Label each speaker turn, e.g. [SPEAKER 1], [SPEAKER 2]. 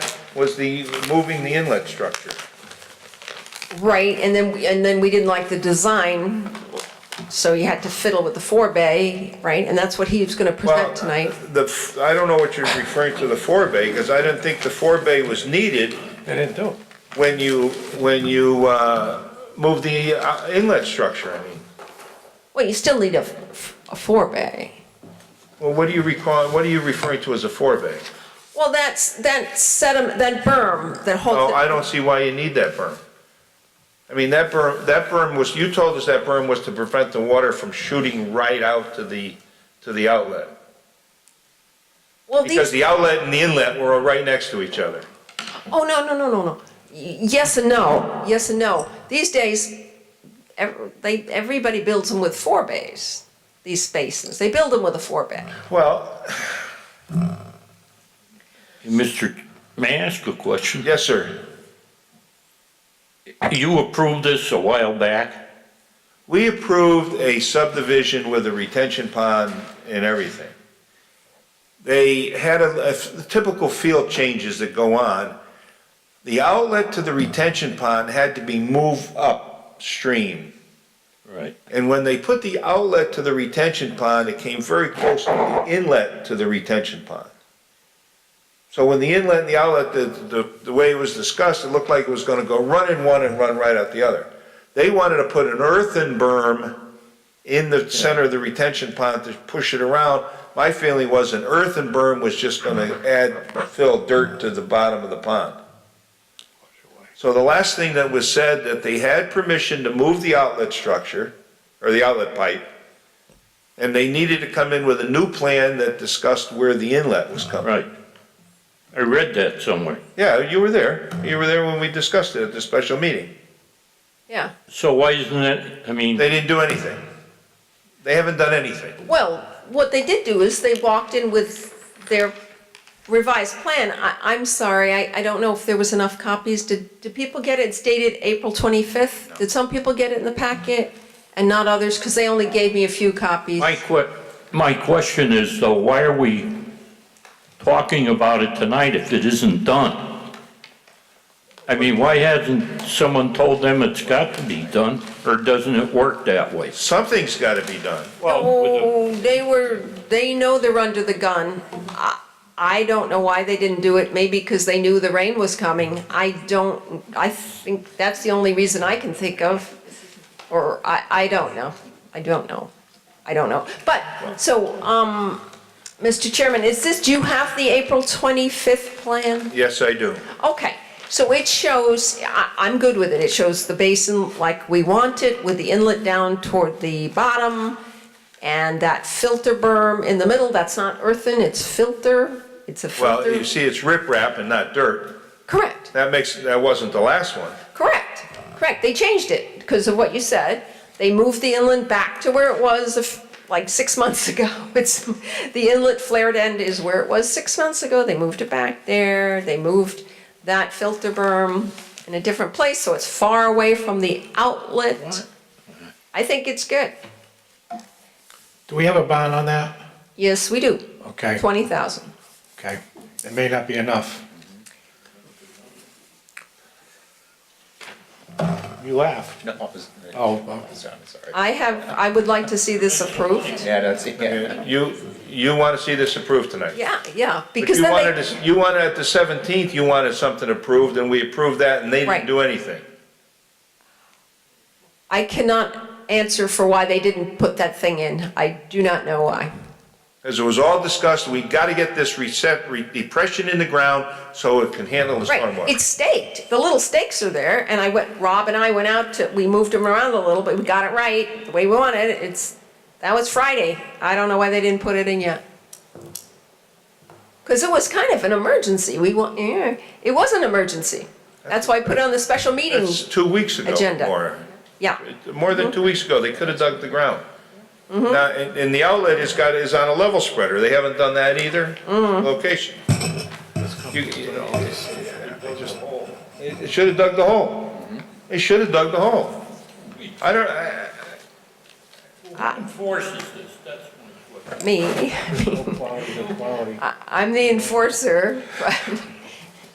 [SPEAKER 1] was the, moving the inlet structure.
[SPEAKER 2] Right, and then, we- and then we didn't like the design, so you had to fiddle with the four-bay, right? And that's what he was gonna
[SPEAKER 1] Well, uh,
[SPEAKER 2] present tonight.
[SPEAKER 1] The, f- I don't know what you're referring to the forebay, because I didn't think the forebay was needed
[SPEAKER 3] They didn't do it.
[SPEAKER 1] when you, when you, uh, moved the uh, inlet structure, I mean.
[SPEAKER 2] Well, you still need a, f- a four-bay.
[SPEAKER 1] Well, what do you recall, what are you referring to as a forebay?
[SPEAKER 2] Well, that's, that sediment, that berm, that whole.
[SPEAKER 1] Oh, I don't see why you need that berm. I mean, that berm, that berm was, you told us that berm was to prevent the water from shooting right out to the, to the outlet.
[SPEAKER 2] Well, these-
[SPEAKER 1] Because the outlet and the inlet were right next to each other.
[SPEAKER 2] Oh, no, no, no, no, no. Y- Yes and no, yes and no. These days, ev- they, everybody builds them with four bays, these spaces. They build them with a four bay.
[SPEAKER 1] Well,
[SPEAKER 4] Mr., may I ask a question?
[SPEAKER 1] yes, sir.
[SPEAKER 4] You approved this a while back.
[SPEAKER 1] We approved a subdivision with a retention pond and everything. They had a, a typical field changes that go on. The outlet to the retention pond had to be moved upstream.
[SPEAKER 4] Right.
[SPEAKER 1] And when they put the outlet to the retention pond, it came very close to the inlet to the retention pond. So when the inlet and the outlet, the, the, the way it was discussed, it looked like it was gonna go run in one and run right out the other. They wanted to put an earthen berm in the center of the retention pond to push it around. My feeling was an earthen berm was just gonna add, fill dirt to the bottom of the pond. So the last thing that was said, that they had permission to move the outlet structure, or the outlet pipe, and they needed to come in with a new plan that discussed where the inlet was coming.
[SPEAKER 4] Right. I read that somewhere.
[SPEAKER 1] Yeah, you were there. You were there when we discussed it at the special meeting.
[SPEAKER 2] Yeah.
[SPEAKER 4] So why isn't it, I mean,
[SPEAKER 1] They didn't do anything. They haven't done anything.
[SPEAKER 2] Well, what they did do is they walked in with their revised plan. I, I'm sorry, I, I don't know if there was enough copies. Did, did people get it? It's dated April 25th. Did some people get it in the packet and not others? Because they only gave me a few copies.
[SPEAKER 4] my que, my question is though, why are we talking about it tonight if it isn't done? I mean, why hasn't someone told them it's got to be done, or doesn't it work that way?
[SPEAKER 1] Something's gotta be done.
[SPEAKER 2] Oh, they were, they know they're under the gun. I- I don't know why they didn't do it, maybe because they knew the rain was coming. I don't, I think that's the only reason I can think of, or I, I don't know. I don't know. I don't know. But, so, um, Mr. Chairman, is this, do you have the April 25th plan?
[SPEAKER 1] Yes, I do.
[SPEAKER 2] Okay, so it shows, I, I'm good with it, it shows the basin like we want it, with the inlet down toward the bottom, and that filter berm in the middle, that's not earthen, it's filter, it's a
[SPEAKER 1] Well, you
[SPEAKER 2] filter.
[SPEAKER 1] see, it's riprap and not dirt.
[SPEAKER 2] Correct,
[SPEAKER 1] That makes, that wasn't the last one.
[SPEAKER 2] correct, correct, they changed it because of what you said. They moved the inlet back to where it was a f- like six months ago. It's, the inlet flared end is where it was six months ago, they moved it back there, they moved that filter berm in a different place, so it's far away from the outlet. I think it's good.
[SPEAKER 3] Do we have a bond on that?
[SPEAKER 2] Yes, we do,
[SPEAKER 3] Okay,
[SPEAKER 2] twenty thousand.
[SPEAKER 3] okay. It may not be enough. You laugh.
[SPEAKER 5] No, it's-
[SPEAKER 3] Oh, well,
[SPEAKER 5] it's not, sorry.
[SPEAKER 2] I have, I would like to see this approved.
[SPEAKER 5] Yeah, that's, yeah.
[SPEAKER 1] You, you wanna see this approved tonight?
[SPEAKER 2] Yeah, yeah,
[SPEAKER 1] But
[SPEAKER 2] because
[SPEAKER 1] you
[SPEAKER 2] then they.
[SPEAKER 1] wanted, to- you wanted, at the 17th, you wanted something approved, and we approved that, and they
[SPEAKER 2] Right.
[SPEAKER 1] didn't do anything.
[SPEAKER 2] I cannot answer for why they didn't put that thing in. I do not know why.
[SPEAKER 1] As it was all discussed, we gotta get this reset, re- depression in the ground so it can handle the
[SPEAKER 2] Right,
[SPEAKER 1] stormwater.
[SPEAKER 2] it's staked. The little stakes are there, and I went, Rob and I went out to, we moved them around a little, but we got it right, the way we wanted it. It's, that was Friday. I don't know why they didn't put it in yet. Because it was kind of an emergency. We want, yeah, it was an emergency. That's why I put it on the special meeting.
[SPEAKER 1] That's two weeks ago,
[SPEAKER 2] Agenda.
[SPEAKER 1] Maura.
[SPEAKER 2] Yeah,
[SPEAKER 1] More than two weeks ago, they could've dug the ground.
[SPEAKER 2] Mm-hmm.
[SPEAKER 1] Now, and, and the outlet has got, is on a level spreader, they haven't done that either,
[SPEAKER 2] Mm-hmm.
[SPEAKER 1] location. You- They they should've dug the hole. They should've dug the hole. I don't, I,
[SPEAKER 4] Enforces this, that's my question.
[SPEAKER 2] me.
[SPEAKER 3] quality, quality.
[SPEAKER 2] I- I'm the enforcer, but